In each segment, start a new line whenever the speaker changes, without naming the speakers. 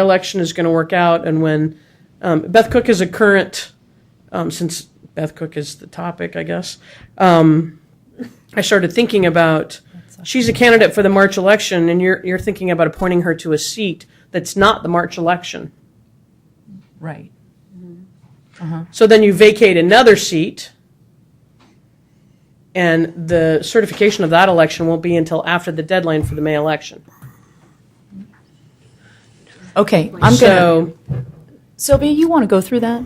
election is going to work out and when um, Beth Cook is a current, um, since Beth Cook is the topic, I guess, um, I started thinking about she's a candidate for the March election and you're, you're thinking about appointing her to a seat that's not the March election.
Right.
So then you vacate another seat, and the certification of that election won't be until after the deadline for the May election.
Okay, I'm gonna,
So,
Sylvia, you want to go through that?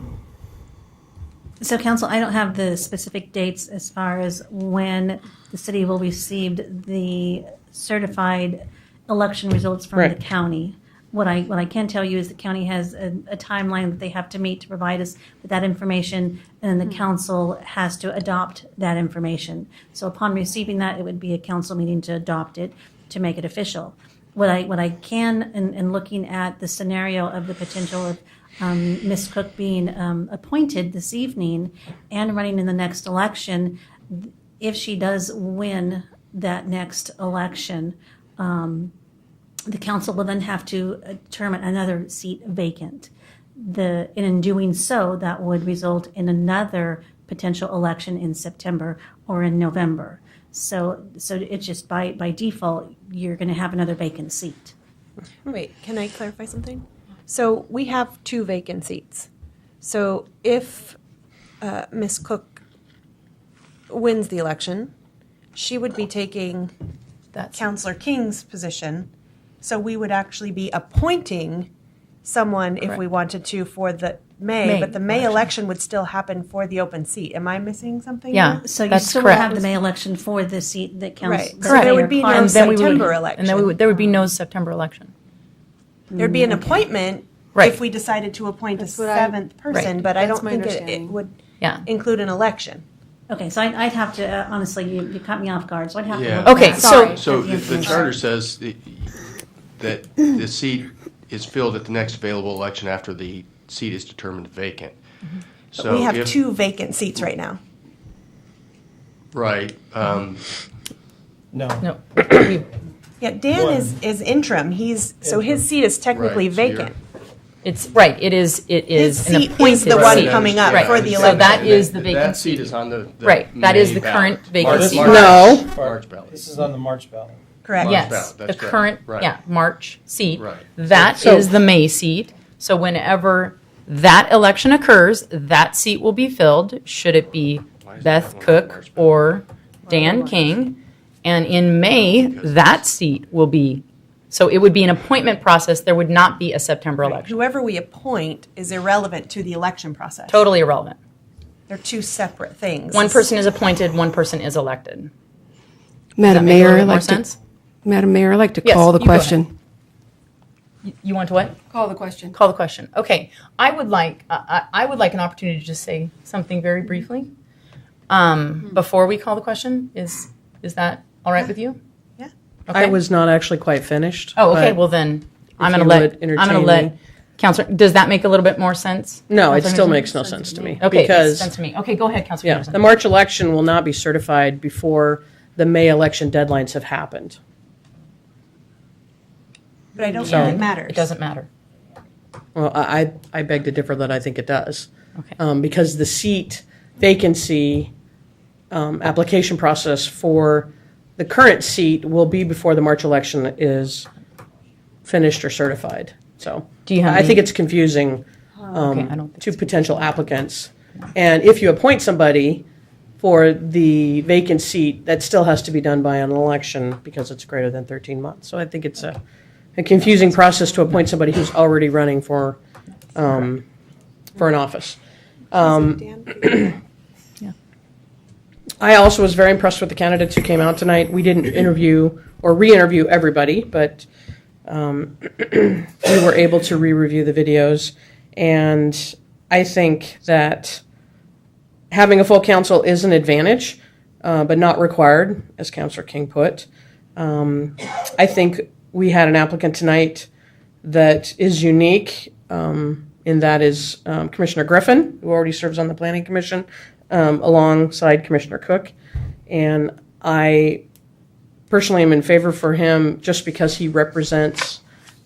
So council, I don't have the specific dates as far as when the city will receive the certified election results from the
Right.
county. What I, what I can tell you is the county has a, a timeline that they have to meet to provide us with that information, and then the council has to adopt that information. So upon receiving that, it would be a council meeting to adopt it, to make it official. What I, what I can, and, and looking at the scenario of the potential of um, Ms. Cook being um, appointed this evening and running in the next election, if she does win that next election, um, the council will then have to determine another seat vacant. The, and in doing so, that would result in another potential election in September or in November. So, so it's just by, by default, you're going to have another vacant seat.
Wait, can I clarify something? So we have two vacant seats. So if uh, Ms. Cook wins the election, she would be taking
That's-
Counselor King's position. So we would actually be appointing someone if we wanted to for the May,
May
but the May
election.
election would still happen for the open seat. Am I missing something?
Yeah.
here?
So you
That's
still will have
correct.
the May election for the seat that counts.
Right.
that
So there
Mayor
would be
Clark-
no
And then we would-
September
And then we would,
election.
there would be no September election.
There'd be an appointment
Right.
if we decided to appoint a
Mm, what I-
seventh person, but I
That's
don't
my
think it- it
understanding.
would
Yeah.
include an election.
Okay, so I'd, I'd have to, uh, honestly, you, you cut me off guard, so I'd have to.
Yeah.
look at
Okay,
that.
so-
Sorry.
So the- the
Information.
charter says that- that the seat is filled at the next available election after the seat is determined vacant.
Mm-hmm.
So
We have
if-
two vacant seats right now.
Right. um,
No. we-
Yeah, Dan is, is interim. He's, so his seat is technically
Right, so you're-
vacant.
It's, right, it is, it
His
is an
seat
appointed seat.
is the one coming up
Right.
for the
So that
election.
is the vacant
That
seat.
seat is on the. the
Right, that is
May
the
ballot.
current vacant
seat.
No.
March ballot.
This is on the March ballot.
Correct.
March
Yes,
ballot,
the
that's correct.
current,
Right.
yeah, March seat.
Right.
That
So-
is the May seat. So whenever that election occurs, that seat will be filled, should it be
is that
Beth
one on
Cook
March ballot?
or Dan King. And in May, that seat will be, so it would be an appointment process. There would not be a September election.
Whoever we appoint is irrelevant to the election process.
Totally irrelevant.
They're two separate things.
One person is appointed, one person is elected. That
Madam
make a
Mayor,
little
I'd
bit more
like to,
sense?
Madam Mayor, I'd like to
Yes,
call the
you go ahead.
question.
You want to what?
Call the question.
call the question. Okay, I would like uh, I, I I would like an opportunity to just say something very briefly um, before we call the question. Is is that all right with you?
Mm-hmm. Yeah.
Okay.
I was not actually quite finished.
Oh, okay.
but-
Well, then I'm
you
going to let
would
I'm going
entertain
to
me.
let Counselor. Does that make a little bit more sense?
No, it
Counselor
still
Henderson?
makes no sense to me.
Okay,
Because,
sense to me. Okay, go ahead, Counselor.
yeah,
Henderson.
the March election will not be certified before the May election deadlines have happened.
But I don't think
So-
it matters.
It doesn't matter.
Well, I, I- I beg to differ that I think it does.
Okay.
Um, because the seat vacancy, um, application process for the current seat will be before the March election is finished or certified. So.
Do you have
I think
any- Oh,
it's confusing,
okay, I don't
um,
think
to potential applicants. And if you appoint somebody for the vacant seat, that still has to be done by an election because it's greater than thirteen months. So I think it's a, a confusing process to appoint somebody who's already running for, um, for an office. Um, I also was very impressed with the candidates who came out tonight. We didn't interview or re-interview everybody, but um, we were able to re-review the videos, and I think that having a full council is an advantage, uh, but not required, as Councilor King put. Um, I think we had an applicant tonight that is unique, um, and that is um, Commissioner Griffin, who already serves on the Planning Commission, um, alongside Commissioner Cook. And I personally am in favor for him just because he represents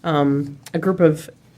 um, a group of